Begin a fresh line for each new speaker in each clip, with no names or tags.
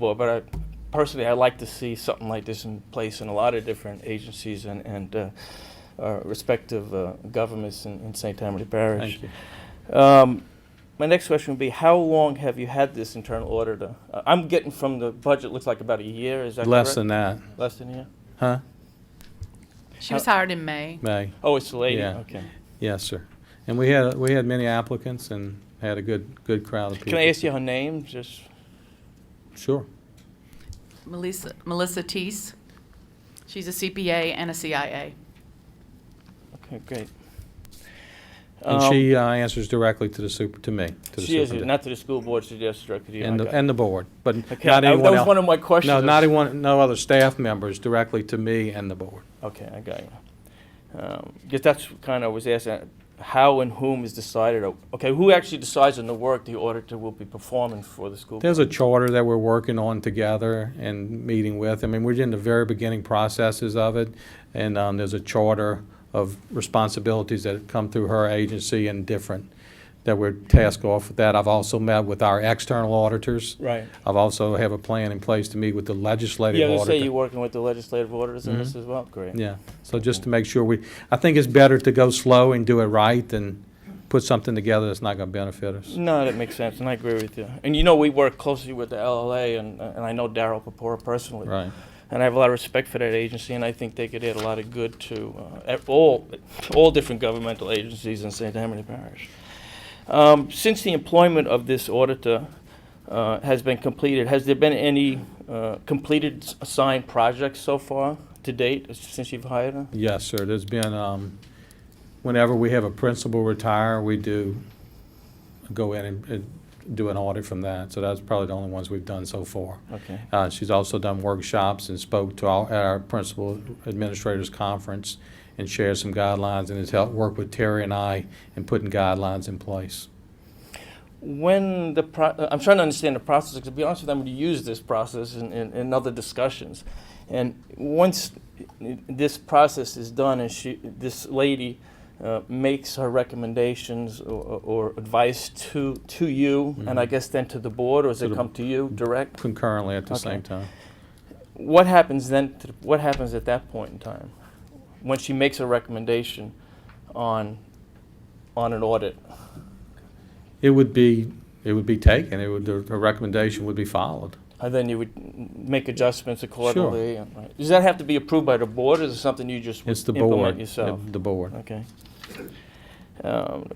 Well, but I, personally, I like to see something like this in place in a lot of different agencies and, and uh, our respective uh, governments in, in St. Tammany Parish.
Thank you.
Um, my next question would be, how long have you had this internal auditor? Uh, I'm getting from the budget, looks like about a year, is that
Less
correct?
than that,
Less than a year?
huh?
She was hired in May.
May,
Oh, it's the lady,
Yeah.
okay.
yes, sir. And we had, we had many applicants and had a good, good crowd of people.
Can I ask you her name, just?
Sure.
Melissa, Melissa Teese. She's a CPA and a CIA.
Okay, great.
And
Um,
she uh, answers directly to the super, to me, to the
She is,
superintendent.
not to the school board, she just directed you. I
And, the-
got it.
and the board, but
Okay, I-
not anyone else.
That was one of my questions.
No,
I
not
was-
anyone, no other staff members, directly to me and the board.
Okay, I got you. Um, Because that's kind of was asking, how and whom is decided, o- okay, who actually decides on the work the auditor will be performing for the school?
There's a charter that we're working on together and meeting with. I mean, we're in the very beginning processes of it. And um, there's a charter of responsibilities that come through her agency and different that we're tasked off with that. I've also met with our external auditors.
Right.
I've also have a plan in place to meet with the legislative
Yeah,
auditor.
they say you're working with the legislative auditors in this as well, great.
Yeah, so just to make sure we, I think it's better to go slow and do it right than put something together that's not going to benefit us.
No, that makes sense, and I agree with you. And you know, we work closely with the LLA, and, and I know Daryl Papora personally.
Right.
And I have a lot of respect for that agency, and I think they could add a lot of good to uh, ev- all, all different governmental agencies in St. Tammany Parish. Um, Since the employment of this auditor uh, has been completed, has there been any uh, completed s- assigned projects so far to date, s- since you've hired her?
Yes, sir. There's been, um, whenever we have a principal retire, we do go in and, and do an audit from that. So that's probably the only ones we've done so far.
Okay.
Uh, she's also done workshops and spoke to all, at our principal administrators conference and shared some guidelines and has helped work with Terry and I in putting guidelines in place.
When the, pro- uh, I'm trying to understand the process, because to be honest with you, I'm going to use this process in, in, in other discussions. And once this process is done and she, this lady uh, makes her recommendations or, or advice to, to you, and I guess then to the board, or does
Mm-hmm. To
it
the-
come to you direct?
concurrently at the
Okay.
same time.
What happens then, to, what happens at that point in time? When she makes a recommendation on, on an audit?
It would be, it would be taken, it would, the the recommendation would be followed.
And then you would m- make adjustments accordingly. and- right. Does that have to be approved by the board, or is it something you just
It's the board.
implement yourself?
The board.
Okay. Um,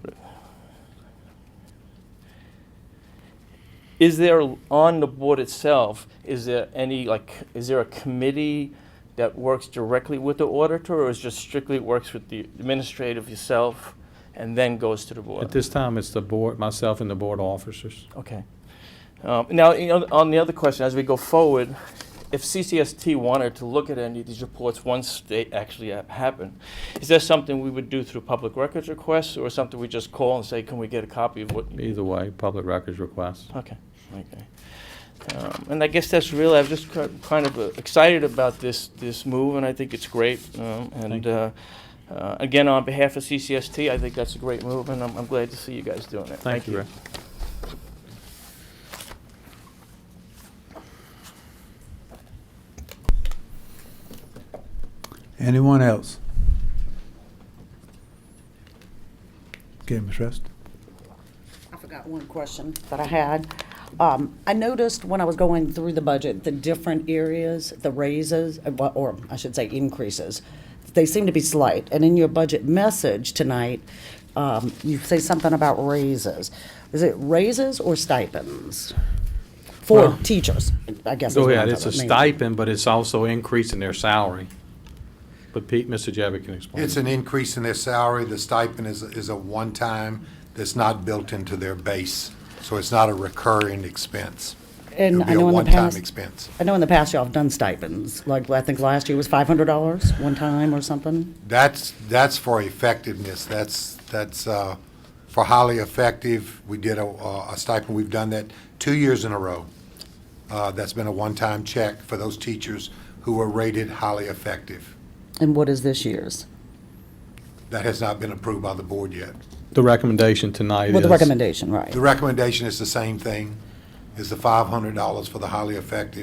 Is there, on the board itself, is there any, like, is there a committee that works directly with the auditor, or is just strictly works with the administrative yourself and then goes to the board?
At this time, it's the board, myself and the board officers.
Okay. Um, Now, you know, on the other question, as we go forward, if CCST wanted to look at any of these reports once they actually ha- happen, is that something we would do through public records requests or something we just call and say, can we get a copy of what? you-"
Either way, public records requests.
Okay, okay. Um, And I guess that's really, I'm just ki- kind of uh, excited about this, this move, and I think it's great. Um, And
Thank you.
uh, uh, again, on behalf of CCST, I think that's a great move, and I'm I'm glad to see you guys doing it.
Thank you, Rick.
Anyone else? Okay, Ms. Rest.
I forgot one question that I had. Um, I noticed when I was going through the budget, the different areas, the raises, uh, wha- or I should say increases, they seem to be slight. And in your budget message tonight, um, you say something about raises. Is it raises or stipends? For
Well-
teachers, I guess. is
Go
what I'm
ahead, it's a
talking about, mainly.
stipend, but it's also increasing their salary. But Pete, Mr. Jevick can explain.
It's an increase in their salary. The stipend is, is a one-time that's not built into their base. So it's not a recurring expense.
And
It'll
I
be a
know in the
one-time
past-
expense.
I know in the past y'all have done stipends, like I think last year was five hundred dollars one time or something.
That's, that's for effectiveness. That's, that's, uh, for highly effective. We did a, a stipend. We've done that two years in a row. Uh, that's been a one-time check for those teachers who were rated highly effective.
And what is this year's?
That has not been approved by the board yet.
The recommendation tonight is.
With the recommendation, right?
The recommendation is the same thing. is the $500 for the highly effective